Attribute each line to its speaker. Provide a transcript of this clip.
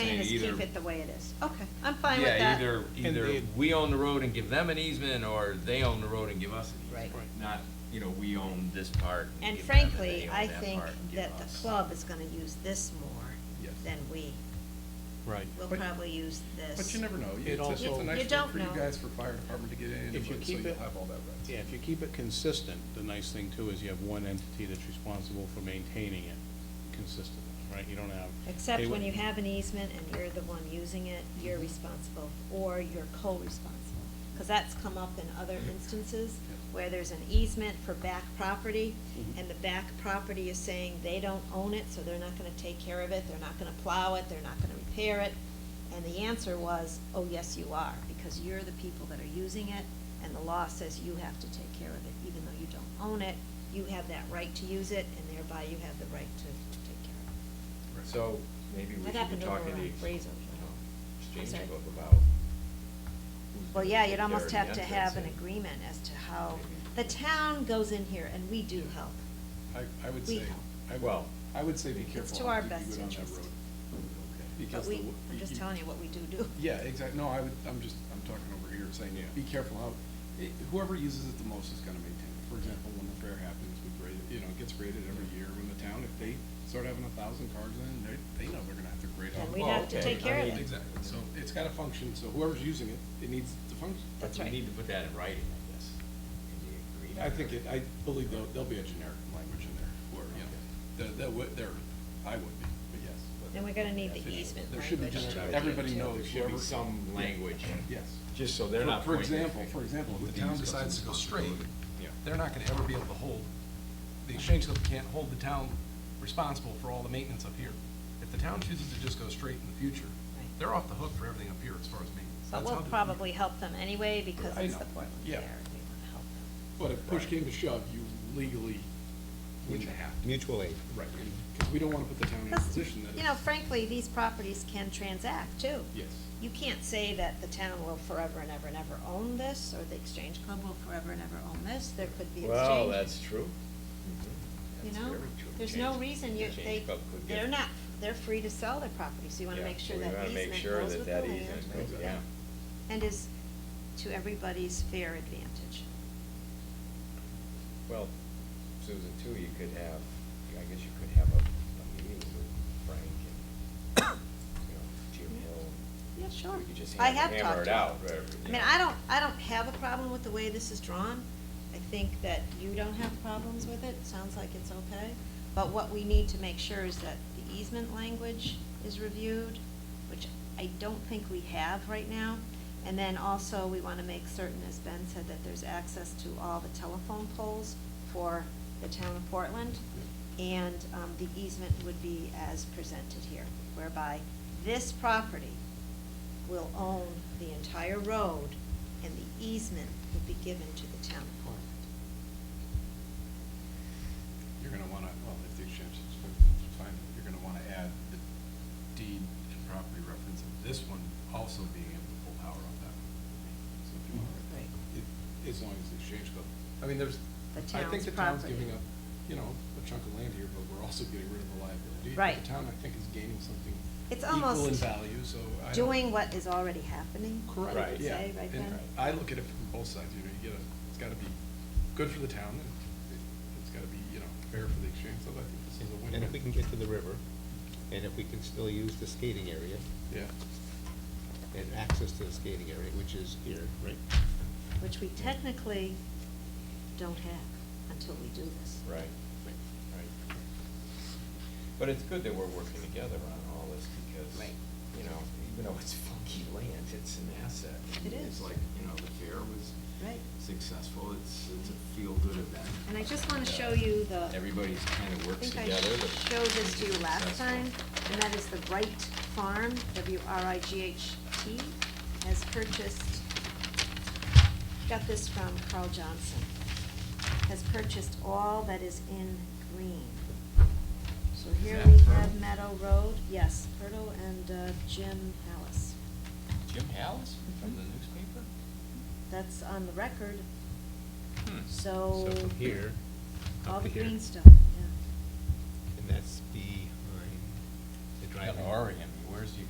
Speaker 1: keep
Speaker 2: either-
Speaker 1: it the way it is. Okay, I'm fine with
Speaker 2: Yeah,
Speaker 1: that.
Speaker 2: either,
Speaker 3: And
Speaker 2: either
Speaker 3: the-
Speaker 2: we own the road and give them an easement, or they own the road and give us an
Speaker 1: Right.
Speaker 2: easement.
Speaker 3: Right.
Speaker 2: Not, you know, we own this part.
Speaker 1: And
Speaker 2: give them, and
Speaker 1: frankly,
Speaker 2: they own
Speaker 1: I
Speaker 2: that
Speaker 1: think
Speaker 2: part and give
Speaker 1: that the
Speaker 2: us.
Speaker 1: club is gonna use this more
Speaker 2: Yes.
Speaker 1: than we.
Speaker 3: Right.
Speaker 1: We'll
Speaker 4: But-
Speaker 1: probably use this.
Speaker 4: But Oh, you never know.
Speaker 3: It
Speaker 4: It's a-
Speaker 3: also-
Speaker 4: It's a
Speaker 1: You
Speaker 4: nice
Speaker 1: don't
Speaker 4: way for you
Speaker 1: know.
Speaker 4: guys for fire department to get in,
Speaker 3: If you
Speaker 4: anyway, so
Speaker 3: keep
Speaker 4: you'll
Speaker 3: it-
Speaker 4: have all that right.
Speaker 3: Yeah, if you keep it consistent, the nice thing too is you have one entity that's responsible for maintaining it consistently, right? You don't have.
Speaker 1: Except
Speaker 3: Um, they-
Speaker 1: when you have an easement and you're the one using it, you're responsible, or you're co-responsible. Because that's come up in other instances where there's an easement for back property,
Speaker 3: Mhm.
Speaker 1: and the back property is saying they don't own it, so they're not gonna take care of it, they're not gonna plow it, they're not gonna repair it. And the answer was, oh, yes, you are, because you're the people that are using it, and the law says you have to take care of it, even though you don't own it, you have that right to use it, and thereby you have the right to to take care of it.
Speaker 2: So, maybe we
Speaker 1: That
Speaker 2: should be
Speaker 1: happened over
Speaker 2: talking to
Speaker 1: on
Speaker 2: the
Speaker 1: Fraser,
Speaker 2: ex-
Speaker 1: right? I'm sorry.
Speaker 2: exchange book about. who's
Speaker 1: Well,
Speaker 2: gonna
Speaker 1: yeah,
Speaker 2: take
Speaker 1: you'd
Speaker 2: care
Speaker 1: almost
Speaker 2: of the
Speaker 1: have to have an
Speaker 2: entrance and-
Speaker 1: agreement as to how, the
Speaker 2: Maybe.
Speaker 1: town goes in here and we do help.
Speaker 4: I, I would
Speaker 1: We
Speaker 4: say,
Speaker 1: help.
Speaker 4: I, well,
Speaker 2: Well-
Speaker 4: I would say be
Speaker 1: It's
Speaker 4: careful.
Speaker 1: to
Speaker 4: how
Speaker 1: our
Speaker 4: deep you
Speaker 1: best
Speaker 4: go down that
Speaker 1: interest.
Speaker 4: road,
Speaker 1: But
Speaker 4: because
Speaker 1: we,
Speaker 4: the w-
Speaker 1: I'm just telling you what we do do.
Speaker 4: Yeah, exactly. No, I would, I'm just, I'm talking over here saying,
Speaker 3: Yeah.
Speaker 4: be careful how, it- whoever uses it the most is gonna maintain it. For example, when the fair happens, we grade it, you know, it gets graded every year. When the town, if they start having a thousand cars in, they, they know they're gonna have to grade all
Speaker 1: And
Speaker 4: the
Speaker 1: we'd
Speaker 2: Well,
Speaker 1: have to
Speaker 2: okay,
Speaker 1: take
Speaker 2: I
Speaker 1: care of
Speaker 2: mean,
Speaker 1: it.
Speaker 4: Exactly. So it's gotta function, so whoever's using it, it needs to function.
Speaker 1: That's
Speaker 2: We
Speaker 1: right.
Speaker 2: Need to put that in writing, I guess, in the agreement.
Speaker 4: I think it, I believe there'll, there'll be a generic language in there, where, you know, there, there would, there, I would be, but yes. but
Speaker 1: And we're gonna need
Speaker 4: Yes,
Speaker 1: the
Speaker 4: it-
Speaker 1: easement
Speaker 4: there should be
Speaker 1: language
Speaker 4: just-
Speaker 1: to
Speaker 4: everybody
Speaker 1: review, too.
Speaker 4: knows.
Speaker 2: There should be
Speaker 4: whoever-
Speaker 2: some language,
Speaker 4: Yes.
Speaker 2: just so they're
Speaker 4: For-
Speaker 2: not
Speaker 4: For
Speaker 2: pointing.
Speaker 4: example, for example, if the town decides to go straight,
Speaker 2: Yeah.
Speaker 4: they're not gonna ever be able to hold, the exchange club can't hold the town responsible for all the maintenance up here. If the town chooses to just go straight in the future,
Speaker 1: Right.
Speaker 4: they're off the hook for everything up here as far as maintenance.
Speaker 1: But
Speaker 4: That's
Speaker 1: we'll
Speaker 4: how the-
Speaker 1: probably help them anyway because
Speaker 4: I
Speaker 1: it's
Speaker 4: know.
Speaker 1: the Portland Fair.
Speaker 4: Yeah.
Speaker 1: We wanna help them.
Speaker 4: But if push came to shove, you legally wouldn't have to.
Speaker 5: Mutual aid.
Speaker 4: Right, because we don't want to put the town in a
Speaker 1: 'Cause,
Speaker 4: position that.
Speaker 1: You know, frankly, these properties can transact too.
Speaker 4: Yes.
Speaker 1: You can't say that the town will forever and ever and ever own this, or the exchange club will forever and ever own this, there could be exchange.
Speaker 2: Well, that's true. Mm-hmm.
Speaker 1: You
Speaker 2: That's
Speaker 1: know,
Speaker 2: very true.
Speaker 1: there's no
Speaker 2: Change-
Speaker 1: reason you,
Speaker 2: change
Speaker 1: they,
Speaker 2: club could get-
Speaker 1: they're not, they're free to sell their property, so you wanna
Speaker 2: Yeah,
Speaker 1: make
Speaker 2: so
Speaker 1: sure
Speaker 2: we
Speaker 1: that
Speaker 2: wanna make
Speaker 1: easement
Speaker 2: sure
Speaker 1: goes
Speaker 2: that
Speaker 1: with the
Speaker 2: that
Speaker 1: land.
Speaker 2: easement goes-
Speaker 4: Exactly.
Speaker 2: Yeah.
Speaker 1: And is to everybody's fair advantage.
Speaker 2: Well, Susan, too, you could have, I guess you could have a, a meeting with Frank and, you know, Jim Hill.
Speaker 1: Yeah, sure.
Speaker 2: We could just
Speaker 1: I
Speaker 2: hammer-
Speaker 1: have
Speaker 2: hammer
Speaker 1: talked
Speaker 2: it
Speaker 1: to 'em.
Speaker 2: out, or,
Speaker 1: I mean,
Speaker 2: you know.
Speaker 1: I don't, I don't have a problem with the way this is drawn. I think that you don't have problems with it, sounds like it's okay. But what we need to make sure is that the easement language is reviewed, which I don't think we have right now. And then also, we want to make certain, as Ben said, that there's access to all the telephone poles for the town of Portland. And um, the easement would be as presented here, whereby this property will own the entire road, and the easement will be given to the town of Portland.
Speaker 4: You're gonna wanna, well, if the exchange is fine, you're gonna wanna add the deed and property reference of this one also being able to pull power off that. one. So if you want to write that, it- As long as the exchange goes, I mean, there's,
Speaker 1: The
Speaker 4: I think
Speaker 1: town's
Speaker 4: the town's
Speaker 1: property.
Speaker 4: giving up, you know, a chunk of land here, but we're also getting rid of the liability. But
Speaker 1: Right.
Speaker 4: The town, I think, is gaining something
Speaker 1: It's
Speaker 4: equal in
Speaker 1: almost
Speaker 4: value, so I don't.
Speaker 1: Doing what is already happening, I would
Speaker 4: Correct, yeah.
Speaker 1: say, right,
Speaker 4: And
Speaker 1: Ben?
Speaker 4: I look at it from both sides, you know, you get a, it's gotta be good for the town, and it- it's gotta be, you know, fair for the exchange, so I think this is a win-win.
Speaker 5: And if we can get to the river, and if we can still use the skating area
Speaker 4: Yeah,
Speaker 5: and access to the skating area, which is here, right?
Speaker 1: Which we technically don't have until we do this.
Speaker 2: Right, right. But it's good that we're working together on all this because,
Speaker 1: Right.
Speaker 2: you know, even though it's funky land, it's an asset.
Speaker 1: It
Speaker 2: It's
Speaker 1: is.
Speaker 2: like, you know, the fair was
Speaker 1: Right.
Speaker 2: successful, it's, it's a feel-good event.
Speaker 1: And I just want to show you the.
Speaker 2: Everybody's kind of
Speaker 1: I
Speaker 2: works
Speaker 1: think
Speaker 2: together.
Speaker 1: I
Speaker 2: to-
Speaker 1: showed this to you last
Speaker 2: successful.
Speaker 1: time, and that is the Wright Farm, W R I G H T, has purchased, got this from Carl Johnson, has purchased all that is in green. So
Speaker 2: Is
Speaker 1: here
Speaker 2: that
Speaker 1: we
Speaker 2: Hurdle?
Speaker 1: have Meadow Road, yes, Hurdle and uh, Jim Hallis.
Speaker 2: Jim Hallis from the newspaper?
Speaker 1: That's on the record,
Speaker 2: Hmm.
Speaker 1: so.
Speaker 5: So from here,
Speaker 1: All
Speaker 5: up
Speaker 1: the
Speaker 5: to here.
Speaker 1: green stuff, yeah.
Speaker 5: And that's behind the driving.
Speaker 2: Orion, where's you